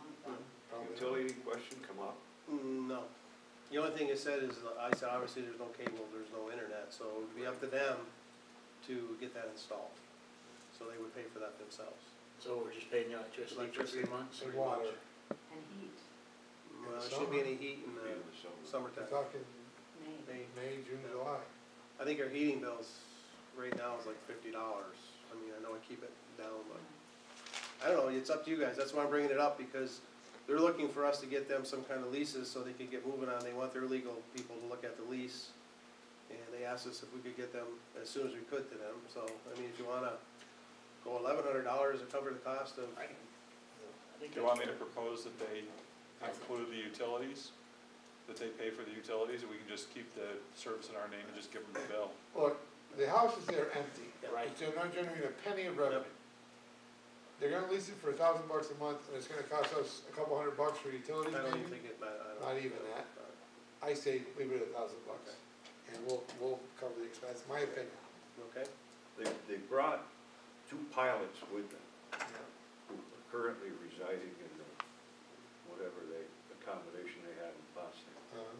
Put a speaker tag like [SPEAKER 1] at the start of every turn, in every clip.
[SPEAKER 1] Um,
[SPEAKER 2] The only thing I said is, I said, obviously, there's no cable, there's no internet, so it would be up to them to get that installed. So they would pay for that themselves.
[SPEAKER 3] So we're just paying the electricity for three
[SPEAKER 2] Electricity.
[SPEAKER 3] months?
[SPEAKER 4] And water.
[SPEAKER 5] and heat,
[SPEAKER 4] In the
[SPEAKER 2] Uh, shouldn't be any heat in
[SPEAKER 1] Be in
[SPEAKER 2] the
[SPEAKER 1] the summer.
[SPEAKER 4] We're
[SPEAKER 2] summertime.
[SPEAKER 4] talking
[SPEAKER 5] May.
[SPEAKER 2] They-
[SPEAKER 4] May, June, July.
[SPEAKER 2] I think our heating bills right now is like fifty dollars. I mean, I know I keep it down, but I don't know, it's up to you guys. That's why I'm bringing it up, because they're looking for us to get them some kind of leases so they can get moving on. They want their legal people to look at the lease. And they asked us if we could get them as soon as we could to them, so, I mean, if you wanna go eleven hundred dollars to cover the cost of,
[SPEAKER 3] I think
[SPEAKER 6] Do you want me to propose that they include the utilities? That they pay for the utilities, and we can just keep the service in our name and just give them the bill?
[SPEAKER 4] Look, the houses there are empty.
[SPEAKER 3] Right.
[SPEAKER 4] They're not generating a penny of revenue. They're gonna lease it for a thousand bucks a month, and it's gonna cost us a couple hundred bucks for
[SPEAKER 2] I
[SPEAKER 4] utilities
[SPEAKER 2] don't even
[SPEAKER 4] maybe.
[SPEAKER 2] think it, ma- I don't.
[SPEAKER 4] Not even that. I say leave it at a thousand bucks, and we'll, we'll cover the expense, my opinion.
[SPEAKER 2] Okay,
[SPEAKER 1] They, they brought two pilots with them who are currently residing in the, whatever they, accommodation they had in Boston.
[SPEAKER 4] Um,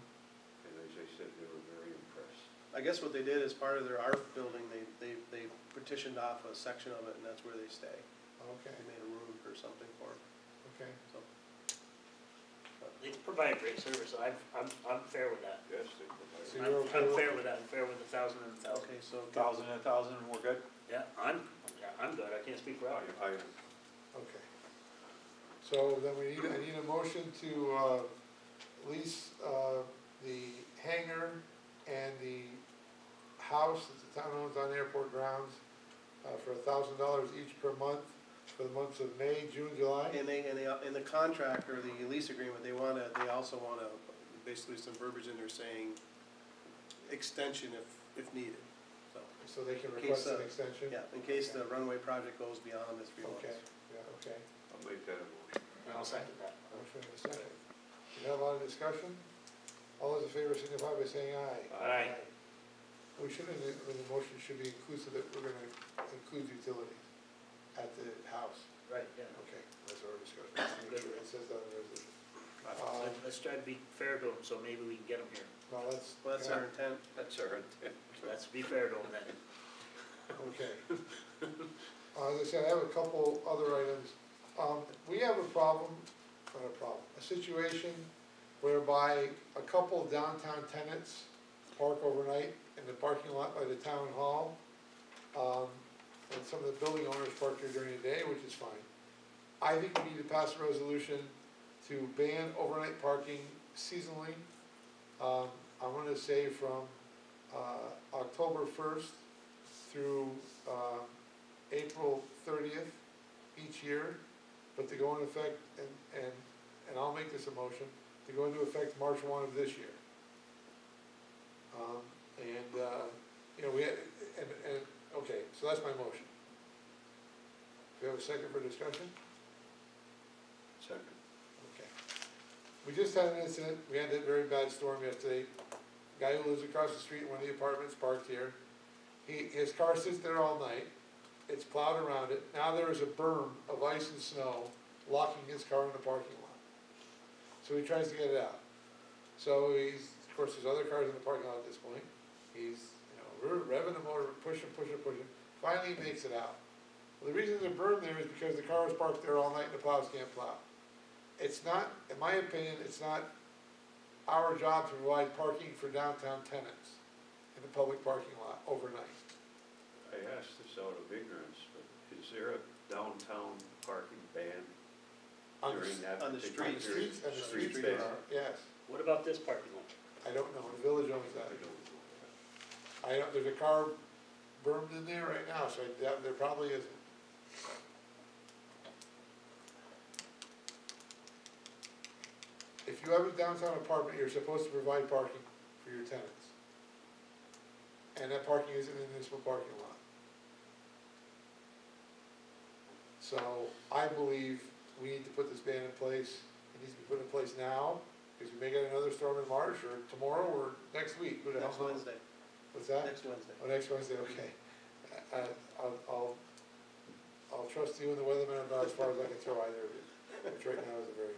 [SPEAKER 1] And as I said, they were very impressed.
[SPEAKER 2] I guess what they did is part of their art building, they, they, they petitioned off a section of it, and that's where they stay.
[SPEAKER 4] Okay,
[SPEAKER 2] They made a room or something for them,
[SPEAKER 4] okay.
[SPEAKER 2] so.
[SPEAKER 3] They provide great service, I'm, I'm, I'm fair with that.
[SPEAKER 1] Yes, they
[SPEAKER 4] So
[SPEAKER 3] I'm,
[SPEAKER 1] provided.
[SPEAKER 4] you're okay
[SPEAKER 3] I'm
[SPEAKER 4] with-
[SPEAKER 3] fair with that, I'm fair with a thousand and a thousand.
[SPEAKER 2] Okay, so.
[SPEAKER 6] Thousand and a thousand, and we're good?
[SPEAKER 3] Yeah, I'm, yeah, I'm good, I can't speak for Al.
[SPEAKER 1] I,
[SPEAKER 4] Okay. So then we need, I need a motion to, uh, lease, uh, the hangar and the house that the town owns on airport grounds, uh, for a thousand dollars each per month for the months of May, June, July.
[SPEAKER 2] And they, and they, and the contract or the lease agreement, they wanna, they also wanna, basically some verbiage in there saying extension if, if needed. So,
[SPEAKER 4] So they can
[SPEAKER 2] Okay,
[SPEAKER 4] request an
[SPEAKER 2] so-
[SPEAKER 4] extension?
[SPEAKER 2] yeah, in case the runway project goes beyond the three months.
[SPEAKER 4] Okay, yeah, okay.
[SPEAKER 1] I'll make that a motion.
[SPEAKER 3] I'll second that.
[SPEAKER 4] Motion in a second. We have a lot of discussion? All those in favor signify by saying aye.
[SPEAKER 3] Aye.
[SPEAKER 4] We should, have- the, the motion should be inclusive that we're gonna include utilities at the house.
[SPEAKER 3] Right, yeah.
[SPEAKER 4] Okay, that's our discussion. Let's make sure It says that in the resolution. Uh,
[SPEAKER 3] Let- Let's try to be fair to them, so maybe we can get them here.
[SPEAKER 4] no, that's.
[SPEAKER 2] Well, that's our intent.
[SPEAKER 1] That's our intent.
[SPEAKER 3] Let's be fair to them then.
[SPEAKER 4] Okay. Uh, As I said, I have a couple other items. Um, we have a problem, not a problem, a situation whereby a couple downtown tenants park overnight in the parking lot by the town hall. Um, and some of the building owners park there during the day, which is fine. I think we need to pass a resolution to ban overnight parking seasonally. Um, I wanna say from, uh, October first through uh, April thirtieth each year, but to go into effect, and, and, and I'll make this a motion, to go into effect March one of this year. Um, And, uh, you know, we had, and, and, okay, so that's my motion. Do you have a second for discussion?
[SPEAKER 1] Second.
[SPEAKER 4] Okay. We just had an incident, we had that very bad storm yesterday. Guy who lives across the street in one of the apartments parked here. He, his car sits there all night, it's plowed around it, now there is a berm of ice and snow locking his car in the parking lot. So he tries to get it out. So he's, of course, there's other cars in the parking lot at this point. He's, you know, re- revving the motor, pushing, pushing, pushing, finally he makes it out. Well, the reason there's a berm there is because the car is parked there all night and the plows can't plow it's not, in my opinion, it's not our job to provide parking for downtown tenants in the public parking lot overnight.
[SPEAKER 1] I asked this out of ignorance, but is there a downtown parking ban
[SPEAKER 4] On the
[SPEAKER 1] during
[SPEAKER 4] s-
[SPEAKER 1] that
[SPEAKER 2] on the
[SPEAKER 1] particular
[SPEAKER 4] The
[SPEAKER 2] streets.
[SPEAKER 1] period?
[SPEAKER 4] streets, and the
[SPEAKER 2] Street
[SPEAKER 4] streets
[SPEAKER 1] ban.
[SPEAKER 4] there are, yes,
[SPEAKER 3] What about this parking lot?
[SPEAKER 4] I don't know, the village owns
[SPEAKER 1] I
[SPEAKER 4] that.
[SPEAKER 1] don't know.
[SPEAKER 4] I don't, there's a car burned in there right now, so I doubt there probably isn't. If you have a downtown apartment, you're supposed to provide parking for your tenants. And that parking is in the municipal parking lot. So I believe we need to put this ban in place, it needs to be put in place now, because we may get another storm in March, or tomorrow, or next week, who the hell
[SPEAKER 2] Next
[SPEAKER 4] knows?
[SPEAKER 2] Wednesday,
[SPEAKER 4] What's that?
[SPEAKER 2] next Wednesday.
[SPEAKER 4] Oh, next Wednesday, okay. Uh, I'll, I'll, I'll trust you and the weatherman about as far as I can throw either of you, which right now is a very